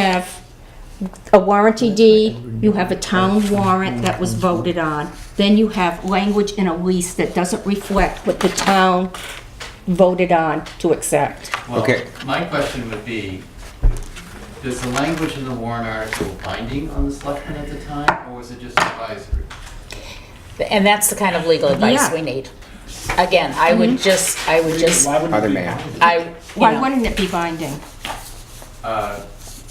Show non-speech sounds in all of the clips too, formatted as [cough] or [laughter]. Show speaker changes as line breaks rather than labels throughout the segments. have a warranty deed, you have a town warrant that was voted on, then you have language in a lease that doesn't reflect what the town voted on to accept.
Well,
Okay.
My question would be, is the language in the Warren article binding on the selectmen at the time, or was it just advisory?
And that's the kind of legal advice
Yeah. Mm-hmm.
we need. Again, I would just, I would just,
Why wouldn't it
Other
be
man.
binding?
I, you
Why
know,
wouldn't it be binding?
Uh,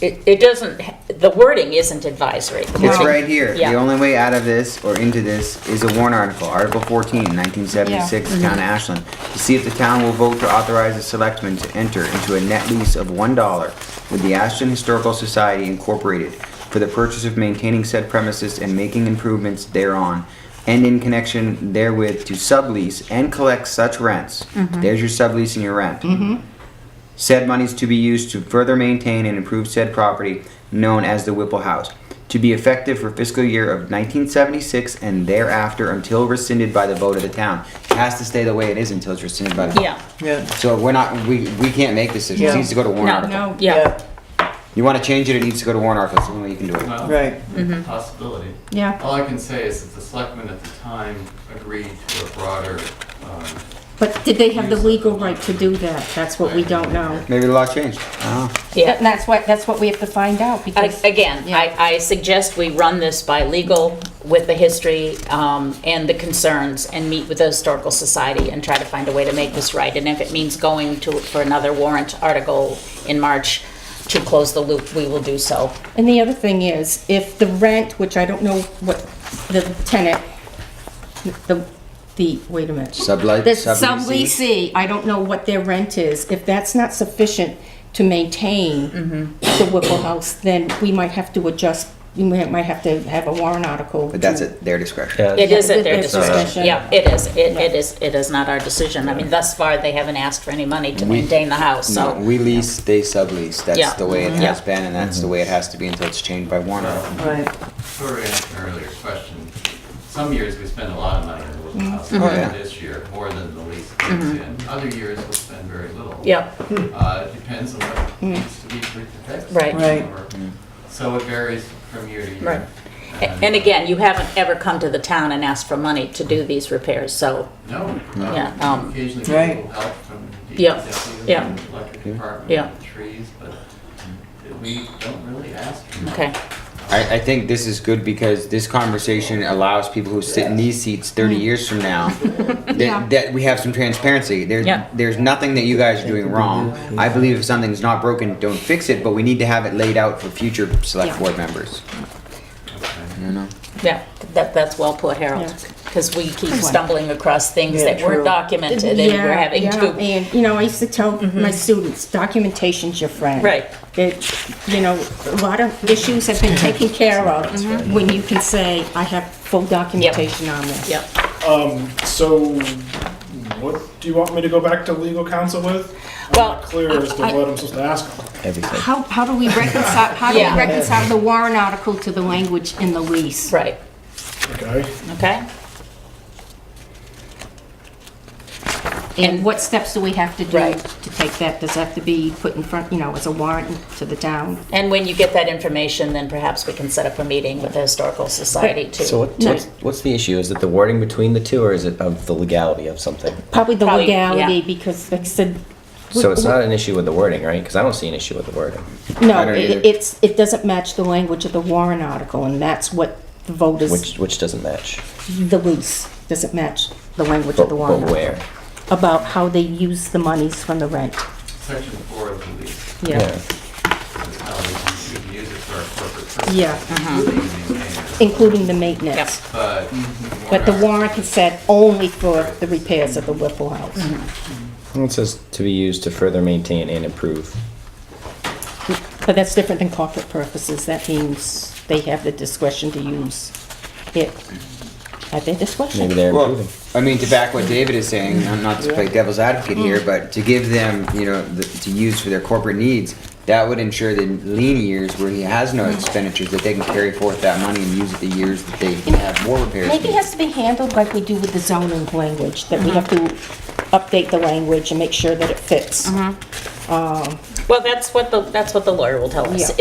it, it doesn't, the wording isn't advisory.
It's
Right.
right here.
Yeah.
The only way out of this or into this is a warrant article, Article 14, 1976, Town of Ashland, to see if the town will vote to authorize the selectmen to enter into a net lease of $1 with the Ashland Historical Society Incorporated for the purchase of maintaining said premises and making improvements thereon, and in connection therewith to sublease and collect such rents. There's your sublease and your rent. Said monies to be used to further maintain and improve said property known as the Whipple House, to be effective for fiscal year of 1976 and thereafter until rescinded by the vote of the town. It has to stay the way it is until it's rescinded by the vote.
Yeah,
Yeah,
So we're not, we, we can't make this decision. It
Yeah.
needs to go to warrant
No,
article.
No,
yeah.
yeah,
You want to change it, it needs to go to warrant article. It's the only way you can do it.
well,
right.
possibility.
yeah,
All I can say is that the selectmen at the time agreed to a broader, um,
but did they have the legal right to do that? That's what we don't know.
Maybe the law changed. Oh.
yeah.
And that's what, that's what we have to find out,
A-
because,
Again, I,
Yeah.
I suggest we run this by legal with the history um, and the concerns and meet with the Historical Society and try to find a way to make this right. And if it means going to, for another warrant article in March to close the loop, we will do so.
and the other thing is, if the rent, which I don't know what the tenant, the, the, wait a minute.
Sublight,
The
subleasing.
subleasee, I don't know what their rent is. If that's not sufficient to maintain
Mm-hmm.
the Whipple House, then we might have to adjust, we might might have to have a warrant article.
But that's
to-
at their discretion.
It is at
With
their
their
discretion.
discretion.
Yeah, it is. It it is, it is not our decision. I mean, thus far, they haven't asked for any money to
We-
maintain the house,
No,
so.
we lease, they sublease. That's
Yeah.
the way it
Mhm.
has been, and that's the way it has to be until it's changed by warrant article.
Right.
sort of answered an earlier question. Some years we spend a lot of money on the Wilton House,
Mhm. Oh, yeah.
this year, more than the lease brings in. Other years we'll spend very little.
Yep, Mm.
Uh, it depends on what needs to be protected.
Right.
Right.
Or- So it varies from year to year.
Right. A- and again, you haven't ever come to the town and asked for money to do these repairs, so,
No.
Yeah,
uh,
um,
Occasionally
Right.
people help from
Yeah,
DPW,
yeah.
electric department,
Yeah.
and trees, but we don't really ask. for much.
okay.
I, I think this is good because this conversation allows people who sit in these seats 30 years from
[laughs]
now that,
Mm. Yeah.
that we have some transparency. There,
Yeah.
There's nothing that you guys are doing wrong. I believe if something's not broken, don't fix it, but we need to have it laid out for future select
Yeah.
board members.
Okay.
You know?
Yeah, that, that's well put, Harold,
Yeah.
because we keep stumbling across things
Yeah,
that weren't
true.
documented and we're
Yeah,
having
yeah,
to,
And, you know, I used to tell my students, documentation's your friend.
Mm-hmm. Right.
It, you know, a lot of issues have been taken care of when you can say, I have full documentation on this.
yep.
Um, so what do you want me to go back to legal counsel with? I'm
Well,
not clear as to
I-
what I'm supposed to ask them.
Everything.
How, how do we reconcile, how do we
Yeah.
reconcile the warrant article to the language in the lease?
Right,
Okay,
okay?
And what steps do we have to do
Right.
to take that? Does that have to be put in front, you know, as a warrant to the town?
And when you get that information, then perhaps we can set up a meeting with the Historical Society to.
So what,
to-
what's, what's the issue? Is it the wording between the two, or is it of the legality of something?
Probably the
Probably,
legality,
yeah.
because like I said.
So it's not an issue with the wording, right? Because I don't see an issue with the wording.
I
No,
don't either.
it- it's, it doesn't match the language of the warrant article, and that's what the vote is,
Which, which doesn't match.
the lease doesn't match the language
But,
of the
but
warrant.
where?
About how they use the monies from the rent,
Section four of the lease,
yeah.
is how we can- we can use it for our corporate purposes.
Yeah.
Mm-hmm.
Including
including maintenance.
the maintenance.
But.
But the warrant is set only for the repairs of the Whipple House.
Well, It says to be used to further maintain and improve.
But that's different than corporate purposes. That means they have the discretion to use it at their discretion.
Maybe they're
Well,
improving.
I mean, to back what David is saying, not- not to play devil's advocate
Mm.
here, but to give them, you know, the, to use for their corporate needs, that would ensure that in lean years where he has no expenditures, that they can carry forth that money and use it the years that they have more repairs.
Maybe it
needed.
has to be handled like we do with the zoning language, that we have to update the language and make sure that it fits.
Well, that's what the, that's what the lawyer will tell us.
Yeah.